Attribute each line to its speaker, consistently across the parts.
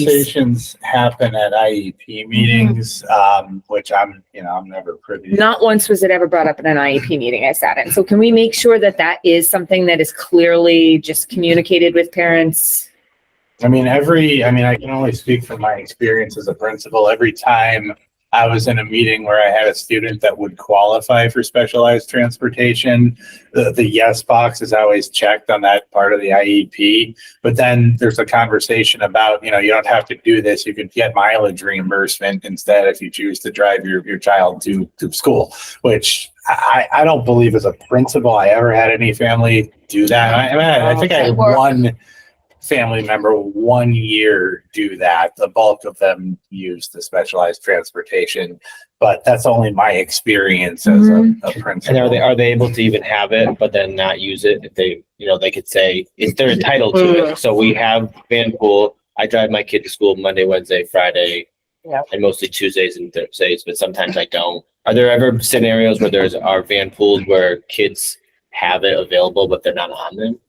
Speaker 1: Conversations happen at IEP meetings, um, which I'm, you know, I'm never privy. to.
Speaker 2: Not once was it ever brought up in an IEP meeting I sat in. So can we make sure that that is something that is clearly just communicated with parents?
Speaker 1: I mean, every, I mean, I can only speak from my experience as a principal. Every time I was in a meeting where I had a student that would qualify for specialized transportation, the, the yes box is always checked on that part of the IEP. But then there's a conversation about, you know, you don't have to do this. You could get mileage reimbursement instead if you choose to drive your, your child to, to school, which I, I I don't believe as a principal, I ever had any family do that. I, I mean, I think I had one family member one year do that. The bulk of them use the specialized transportation, but that's only my experience as a, a
Speaker 3: And
Speaker 1: principal.
Speaker 3: are they, are they able to even have it, but then not use it if they, you know, they could say, it's they're entitled to it. So we have van pool. I drive my kid to school Monday, Wednesday, Friday.
Speaker 2: Yeah.
Speaker 3: And mostly Tuesdays and Thursdays, but sometimes I don't. Are there ever scenarios where there's, are van pools where kids have it available, but they're not on them?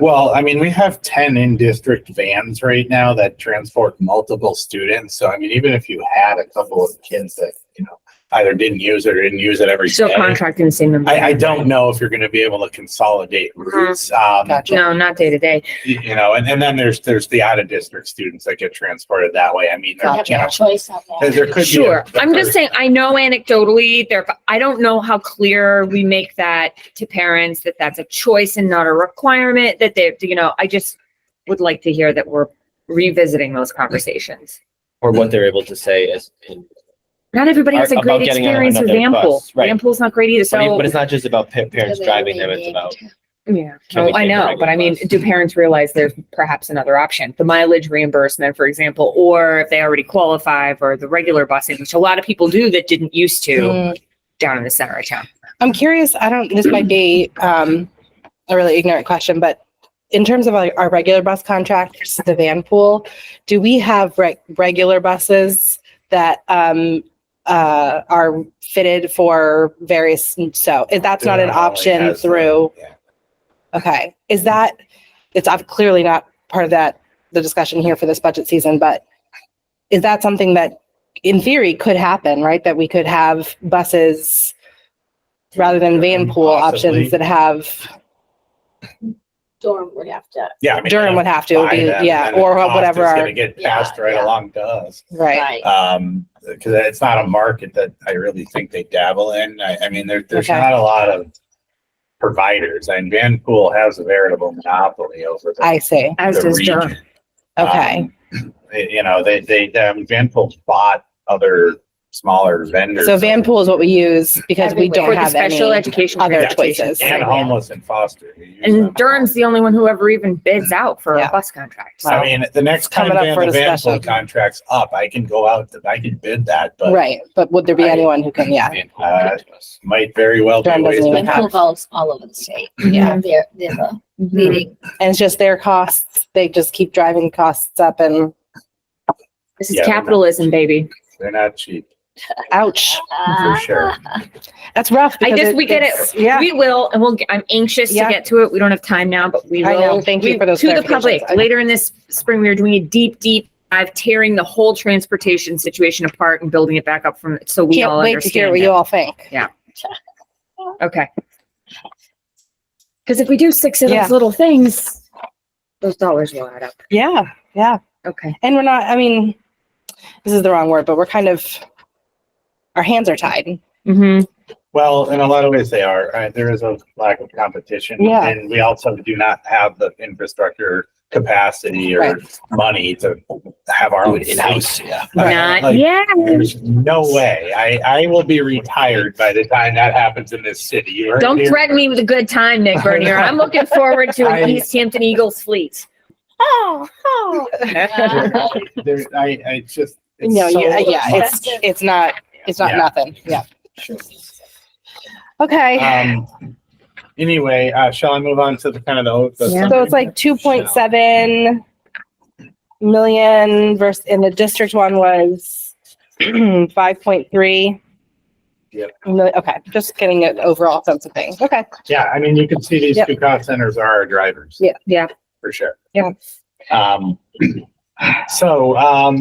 Speaker 1: Well, I mean, we have ten in-district vans right now that transport multiple students. So I mean, even if you had a couple of kids that, you know, either didn't use it or didn't use it every
Speaker 2: Still
Speaker 1: day,
Speaker 2: contracting the same number?
Speaker 1: I, I don't know if you're gonna be able to consolidate routes. Um,
Speaker 2: No, not day to day.
Speaker 1: you know, and, and then there's, there's the out-of-district students that get transported that way. I mean, they're,
Speaker 4: Got
Speaker 1: you know,
Speaker 4: no choice on
Speaker 1: There-
Speaker 4: that.
Speaker 1: There could be. a-
Speaker 2: Sure.
Speaker 1: a
Speaker 2: I'm just
Speaker 1: first-
Speaker 2: saying, I know anecdotally there, but I don't know how clear we make that to parents that that's a choice and not a requirement that they, you know, I just would like to hear that we're revisiting those conversations.
Speaker 3: Or what they're able to say as, in-
Speaker 2: Not everybody has a
Speaker 3: About
Speaker 2: great
Speaker 3: getting on
Speaker 2: experience with
Speaker 3: another
Speaker 2: Vanpool.
Speaker 3: bus, right.
Speaker 2: Vanpool's not great either,
Speaker 3: but it-
Speaker 2: so,
Speaker 3: but it's not just about pa- parents
Speaker 4: Really
Speaker 3: driving them, it's
Speaker 4: big.
Speaker 3: about.
Speaker 2: yeah.
Speaker 3: Can we
Speaker 2: Oh, I
Speaker 3: take the
Speaker 2: know,
Speaker 3: regular
Speaker 2: but I mean,
Speaker 3: bus?
Speaker 2: do parents realize there's perhaps another option? The mileage reimbursement, for example, or if they already qualify for the regular busing, which a lot of people do that didn't used to
Speaker 5: Mm.
Speaker 2: down in the center of town.
Speaker 5: I'm curious, I don't, this might be um, a really ignorant question, but in terms of like, our regular bus contract versus the van pool, do we have reg- regular buses that um, uh, are fitted for various, so if that's not an
Speaker 1: Durham only
Speaker 5: option
Speaker 1: has the-
Speaker 5: through,
Speaker 1: yeah.
Speaker 5: okay, is that, it's ob- clearly not part of that, the discussion here for this budget season, but is that something that in theory could happen, right? That we could have buses rather than van pool
Speaker 1: Possibly.
Speaker 5: options that have
Speaker 4: Dorm would have to,
Speaker 1: Yeah. I mean,
Speaker 5: Durham would have to,
Speaker 1: buy
Speaker 5: be-
Speaker 1: them, and
Speaker 5: yeah,
Speaker 1: then
Speaker 5: or
Speaker 1: the cost
Speaker 5: whatever,
Speaker 1: is
Speaker 5: our-
Speaker 1: Gonna get
Speaker 4: Yeah,
Speaker 1: passed right
Speaker 4: yeah.
Speaker 1: along to us.
Speaker 5: right?
Speaker 4: right.
Speaker 1: Um, because it's not a market that I really think they dabble in. I, I mean, there, there's
Speaker 5: Okay.
Speaker 1: not a lot of providers and Van Pool has a veritable monopoly over. the-
Speaker 5: I see.
Speaker 2: As
Speaker 1: the
Speaker 2: does
Speaker 1: region.
Speaker 2: Durham.
Speaker 5: Okay.
Speaker 1: Um, they- You know, they, they, um, Van Pool bought other smaller vendors.
Speaker 5: So van pool is what we use because we
Speaker 2: For
Speaker 5: don't
Speaker 2: the
Speaker 5: have
Speaker 2: special
Speaker 5: any.
Speaker 2: education.
Speaker 5: other
Speaker 2: transportation
Speaker 5: choices.
Speaker 2: side.
Speaker 1: And homeless and foster. You use them.
Speaker 2: And Durham's the only one who ever even
Speaker 1: Mm.
Speaker 2: bids out for a
Speaker 5: Yeah.
Speaker 2: bus contract.
Speaker 1: I
Speaker 2: So
Speaker 1: mean, the next time
Speaker 5: coming up
Speaker 1: Van,
Speaker 5: for
Speaker 1: the Van Pool
Speaker 5: discussion.
Speaker 1: contract's up, I can go out, and I can bid that, but.
Speaker 5: Right, but would there be
Speaker 1: I-
Speaker 5: anyone who can, yeah,
Speaker 3: van pool driving to us.
Speaker 1: might very well be
Speaker 5: John doesn't
Speaker 1: wasted.
Speaker 5: even
Speaker 4: And
Speaker 5: Uh, have-
Speaker 4: pool goes all over the state.
Speaker 5: Yeah. Mm-hmm.
Speaker 4: They're, they're the leading.
Speaker 5: and it's just their costs, they just keep driving costs up and
Speaker 2: this is
Speaker 1: yeah.
Speaker 2: capitalism, baby.
Speaker 1: They're not cheap,
Speaker 5: ouch,
Speaker 4: uh,
Speaker 1: for sure.
Speaker 5: that's rough.
Speaker 2: I
Speaker 5: because
Speaker 2: guess we get
Speaker 5: it's- Yeah.
Speaker 2: We will, and we'll, get- I'm anxious to
Speaker 5: Yeah.
Speaker 2: get to it. We don't have time now, but we
Speaker 5: I know.
Speaker 2: will.
Speaker 5: Thank you
Speaker 2: we-
Speaker 5: for those
Speaker 2: To the
Speaker 5: clarifications.
Speaker 2: public,
Speaker 5: I-
Speaker 2: later in this spring, we are doing a deep, deep dive, tearing the whole transportation situation apart and building it back up from, so we
Speaker 5: Can't
Speaker 2: all
Speaker 5: wait to hear
Speaker 2: understand.
Speaker 5: what you
Speaker 2: it.
Speaker 5: all think.
Speaker 2: Okay. Because if we do six of
Speaker 5: Yeah.
Speaker 2: those little things, those dollars will add up.
Speaker 5: Yeah, yeah.
Speaker 2: Okay.
Speaker 5: and we're not i mean this is the wrong word but we're kind of our hands are tied
Speaker 2: Mm-hmm.
Speaker 1: Well, in a lot of ways they are. Uh, there is a lack of competition.
Speaker 5: Yeah.
Speaker 1: And we also do not have the infrastructure capacity or money to have our
Speaker 3: Do
Speaker 1: own
Speaker 3: it in-house,
Speaker 1: house.
Speaker 3: yeah.
Speaker 2: Not yet.
Speaker 1: There's no way. I, I will be retired by the time that happens in this city. You heard
Speaker 2: Don't
Speaker 1: it here
Speaker 2: threaten me with a good time, Nick Bernier. I'm looking forward to
Speaker 1: I-
Speaker 2: an East Hampton Eagles fleet.
Speaker 4: Oh, oh.
Speaker 1: There, I, I just. it's
Speaker 5: no
Speaker 1: so-
Speaker 5: yeah, yeah it's it's not it's not
Speaker 1: Yeah.
Speaker 5: nothing yeah okay
Speaker 2: Uh,
Speaker 1: Um, anyway, uh, shall I move on to the kind of the? the
Speaker 2: Yeah.
Speaker 5: so it's like 2.7 million versus and the district one was 5.3
Speaker 1: Yep.
Speaker 5: Mil- okay just getting an overall sense of things okay
Speaker 1: Yeah, I mean, you can see these
Speaker 5: Yep.
Speaker 1: two cost centers are our drivers.
Speaker 5: Yeah.
Speaker 2: Yeah.
Speaker 1: For sure.
Speaker 5: Yeah.
Speaker 1: Um, So, um,